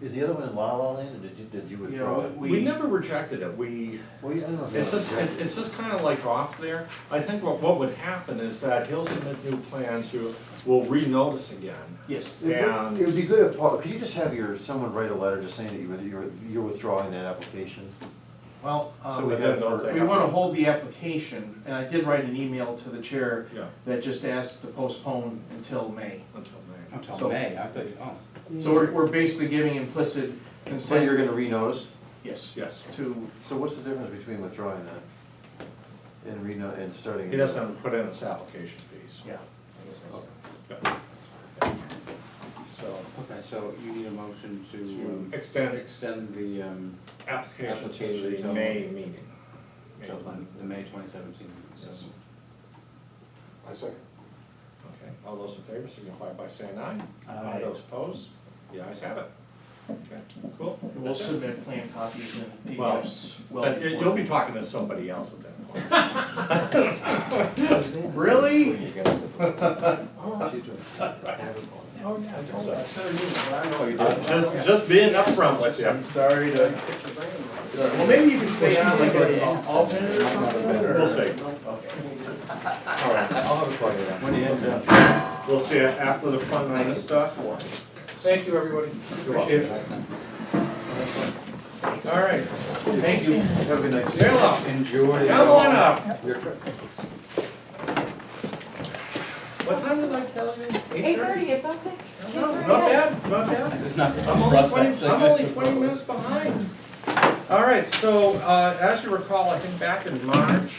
Is the other one in La La Land, or did you, did you You withdraw know, it? We we, never rejected it, we, Well, yeah, I don't know. if it's just, that- it- it's just kind of like off there. I think what, what would happen is that he'll submit new plans, you will re-notice again. yes, It would- and- It would be good if, Paul, could you just have your, someone write a letter just saying that you're, you're- you're withdrawing that application? well, So um, we but have, then don't for- they- we wanna hold the application, and I did write an email to the chair Yeah, that just asked to postpone until May. until May. So- Until May, I thought, oh. So we're, we're basically giving implicit so you're consent, gonna renotice? yes, Yes. to, So what's the difference between withdrawing that and reno, and starting? He doesn't have to put in his application fees. yeah. I guess that's- Yeah. So, Okay, so you need a motion to um, to extend extend the, um, application to Application the till- May meeting. till then, the May twenty seventeen. Yes. Okay, all those in favor signify by saying aye. Aye. Those opposed, the ayes have it. Okay, cool. We'll That's it. submit plan copies and Well, PDFs well That- You'll before. be talking to somebody else at that point. Oh, yeah, I told her. Uh, Just, just being upfront with you. Sorry to. Well, maybe you can stay on like an alternate or something. We'll see. All right, I'll have a party then. When you end up. we'll see you after the fun night of stuff. Thank you, everybody. Appreciate it. All right, Thank you. Have a good night. Jayla, Enjoy. come on up. Your trip. What time did I tell you? Eight thirty, it's okay. No, Not bad, not bad. There's nothing I'm to only rust twenty, I'm only twenty minutes behind. All right, so, uh, as you recall, I think back in March,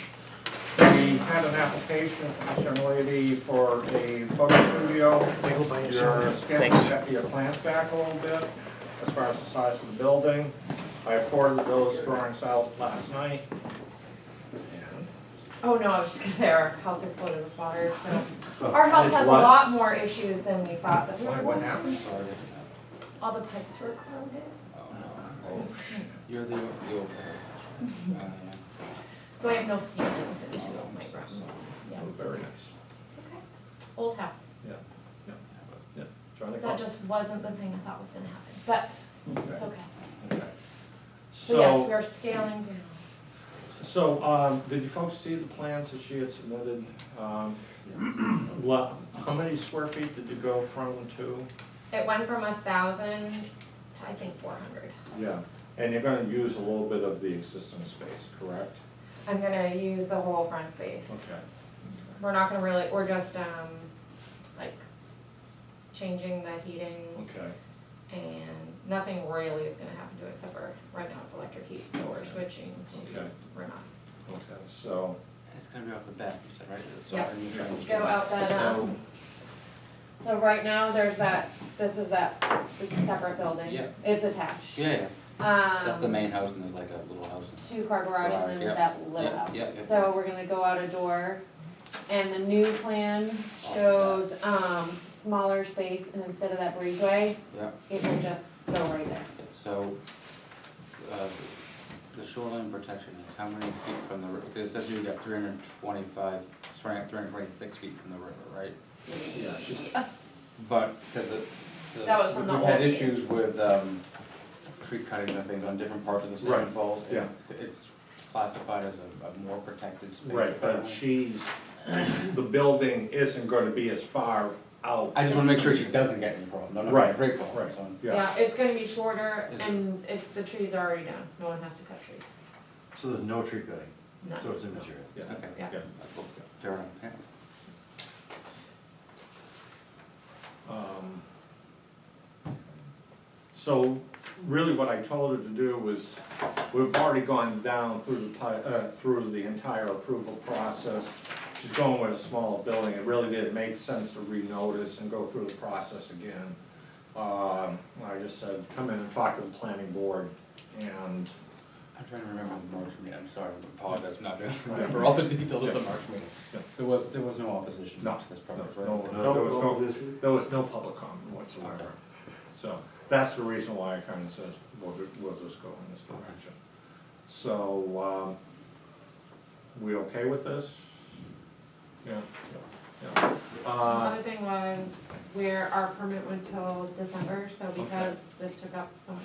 we had an application from this young lady for a photo studio. They go by Your yourself. sketch, set your plans back a little bit, as far as the size of the building. I forwarded those drawings out last night. Oh, no, I was just gonna say our house exploded with water, so. Our house has a lot more issues than we thought that we were Why, going what to. happened? All the pipes were corroded. You're the, the old. guy. Uh, So I have no ceiling to issue with my room. Yeah, Oh, Very nice. it's okay. Old house. Yeah, yeah, yeah. Trying to That come. just wasn't the thing I thought was gonna happen, but it's Okay, okay. okay. So yes, So, we're scaling down. so, um, did you folks see the plans that she had submitted? Um, lo- How many square feet did you go from to? It went from a thousand to I think four hundred. Yeah, and you're gonna use a little bit of the existing space, correct? I'm gonna use the whole front space. Okay. We're not gonna really, we're just, um, like, changing the heating Okay, and nothing really is gonna happen to it except for, right now it's electric heat, so we're switching to Okay. Renault. okay, so. It's gonna be off the bat, you said, right? So Yeah. I need to- Go out that, um, so right now there's that, this is that, it's a separate building. Yeah. It's attached. Yeah, yeah, Um. that's the main house and there's like a little house. two-car garage and then Garage, that little yeah, house. yeah, yeah. So we're gonna go out a door, and the new plan shows, um, smaller space, and instead of that breezeway, Yeah, it will just go right there. so, uh, the shoreline protection is how many feet from the river? Because it says you got three hundred and twenty-five, sorry, three hundred and twenty-six feet from the river, right? Yeah, it's just- Yes. But, cause it. the- That was from the We've had old- issues with, um, tree cutting and things on different parts of the Right, Seven Falls. and yeah. It's classified as a, a more protected space. Right, but apparently. she's, the building isn't gonna be as far out. I just wanna make sure she doesn't get any problems, I'm not gonna Right, break the law, right. so. Yeah, Yeah, it's gonna be shorter, Is it- and if the trees are already down, no one has to cut trees, So there's no tree cutting, none. so it's immaterial. yeah, Okay, Yeah. yeah. fair enough, yeah. Um, So really what I told her to do was, we've already gone down through the, ti- uh, through the entire approval process. She's going with a small building, it really didn't make sense to renotice and go through the process again. Um, I just said, come in and talk to the planning board and I'm trying to remember the March meeting, I'm sorry, I apologize, for not doing, remember all the details of the March meeting. Yeah. There was, there was no opposition No, to this project, no, right? no, Okay. no. there was this. There was no public comment Okay. whatsoever. So that's the reason why I kind of says, we'll, ju- we'll just go in this direction. So, um, we okay with this? Yeah, yeah. yeah. Uh, Another thing was where our permit went till December, so because this took up so much